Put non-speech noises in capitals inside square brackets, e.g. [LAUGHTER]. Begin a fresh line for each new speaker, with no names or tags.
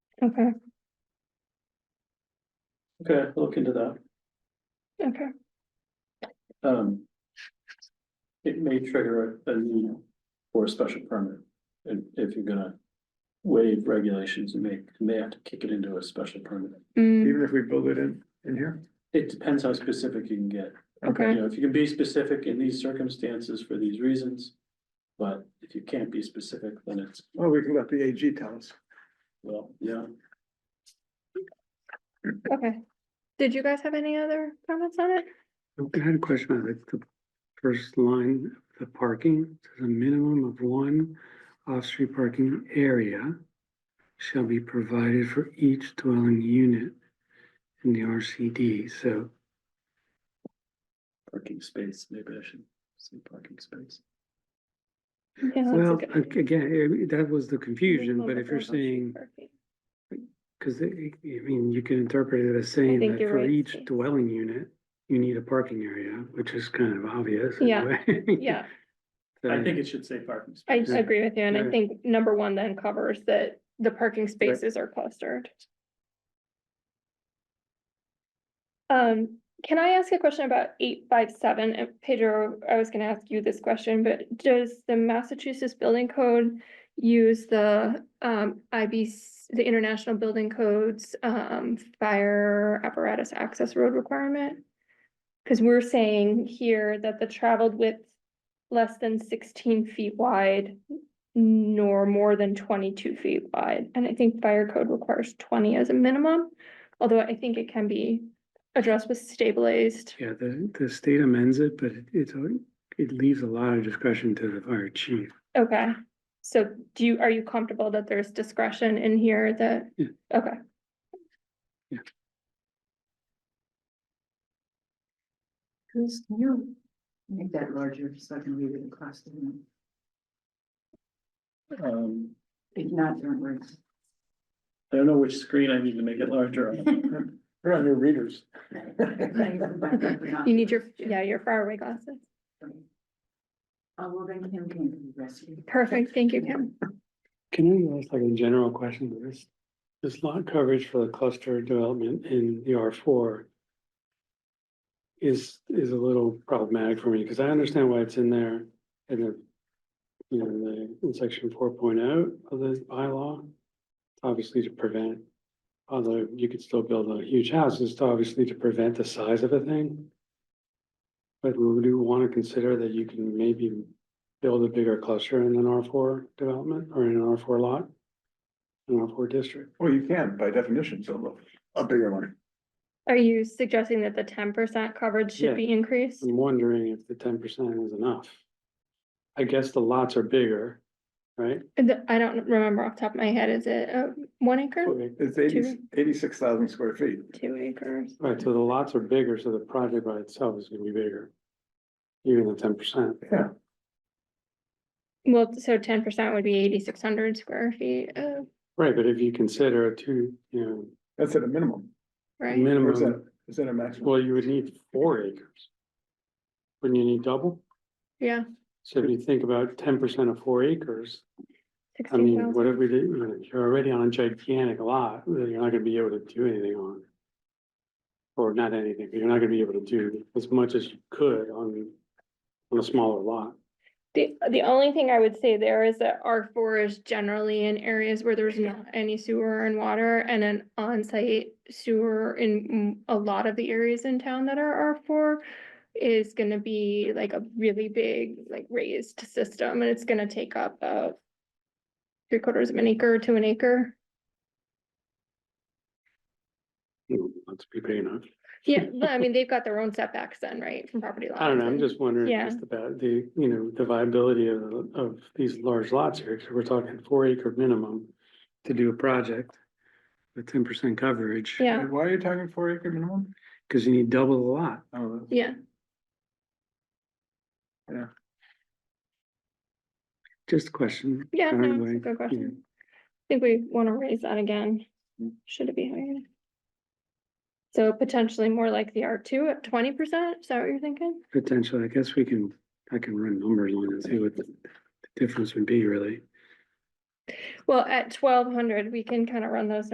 Okay,
Okay, look into that.
okay,
Um. It may trigger a a need for a special permit. If, if you're gonna waive regulations, you may, you may have to kick it into a special permit.
mm,
even if we build it in, in here?
It depends how specific you can get. You
okay,
know, if you can be specific in these circumstances for these reasons. But if you can't be specific, then it's,
Oh, we can let the AG tell us.
well, yeah.
okay. Did you guys have any other comments on it?
I had a question on like, the first line, the parking, there's a minimum of one off-street parking area shall be provided for each dwelling unit in the RCD, so
Parking space, maybe I should say parking space.
Yeah, that's a
Well,
good
ag-
idea.
again, eh, that was the confusion,
Minimum
but
of
if you're
100
saying,
square feet.
because I mean, you can interpret it as saying
think
that
you're
for
right,
each
Steve.
dwelling unit, you need a parking area, which is kind of obvious. in a
Yeah,
way.
Yeah,
[LAUGHS] So-
I think it should say parking. space.
I agree with you, and I
Yeah.
think number one then covers that the parking spaces are clustered. Um, can I ask a question about eight five seven? And Pedro, I was gonna ask you this question, but does the Massachusetts Building Code use the um IBC, the International Building Codes um fire apparatus access road requirement? Cause we're saying here that the traveled width less than sixteen feet wide nor more than twenty-two feet wide, and I think fire code requires twenty as a minimum, although I think it can be addressed with stabilized.
Yeah, the, the state amends it, but it- it's, a- it leaves a lot of discretion to the fire chief.
Okay, so do you, are you comfortable that there's discretion in here that,
Yeah.
okay?
Yeah.
Chris, can you make that larger so I can read it across the room?
Um,
If not, there weren't.
I don't know which screen I need to make it larger on.
We're on your readers.
You need your, yeah, your faraway glasses.
Oh, well, then Kim can be rescued.
Perfect, thank you, Kim.
Can I ask like a general question? There's, this lot coverage for the cluster development in the R four is, is a little problematic for me, because I understand why it's in there in the, you know, in the, in section four oh of the bylaw. Obviously to prevent, although you could still build a huge house, it's obviously to prevent the size of a thing. But we do want to consider that you can maybe build a bigger cluster in an R four development or in an R four lot? An R four district,
Well, you can by definition, so a bigger one.
Are you suggesting that the ten percent coverage
Yeah.
should be increased?
I'm wondering if the ten percent is enough. I guess the lots are bigger, right?
And the- I don't remember off the top of my head, is it a one acre,
It's eighty, eighty-six thousand square feet.
two acres?
Right, so the lots are bigger, so the project by itself is gonna be bigger. Even the ten percent,
Yeah,
Well, so ten percent would be eighty-six hundred square feet of,
right, but if you consider a two, you
that's at a minimum.
know,
Or
right?
is
minimum,
that, is that a maximum?
well, you would need four acres. Wouldn't you need double?
Yeah,
So if you think about ten percent of four acres, I
sixteen
mean,
thousand.
whatever we do, you know, you're already on a gigantic lot that you're not gonna be able to do anything on. Or not anything, but you're not gonna be able to do as much as you could on, on a smaller lot.
The, the only thing I would say there is that R four is generally in areas where there's not any sewer and water and an on-site sewer in mm, a lot of the areas in town that are R four is gonna be like a really big, like raised system and it's gonna take up about three quarters of an acre to an acre.
You know, Not to be big enough.
Yeah, but I mean, they've got their own setbacks then, right, from property lines?
I don't know, I'm
and-
just wondering
Yeah.
just about the, you know, the viability of, of these large lots here, because we're talking four acre minimum to do a project with ten percent coverage.
Yeah,
Why are you talking four acre minimum?
Because you need double the lot.
Oh, that's-
yeah.
Just a question.
Yeah,
I don't
no, it's a
know,
good
you know.
question. I think we wanna raise that again. Should it be higher? So potentially more like the R two at twenty percent, is that what you're thinking?
Potentially, I guess we can, I can run numbers on it and see what the the difference would be really.
Well, at twelve hundred, we can kind of run those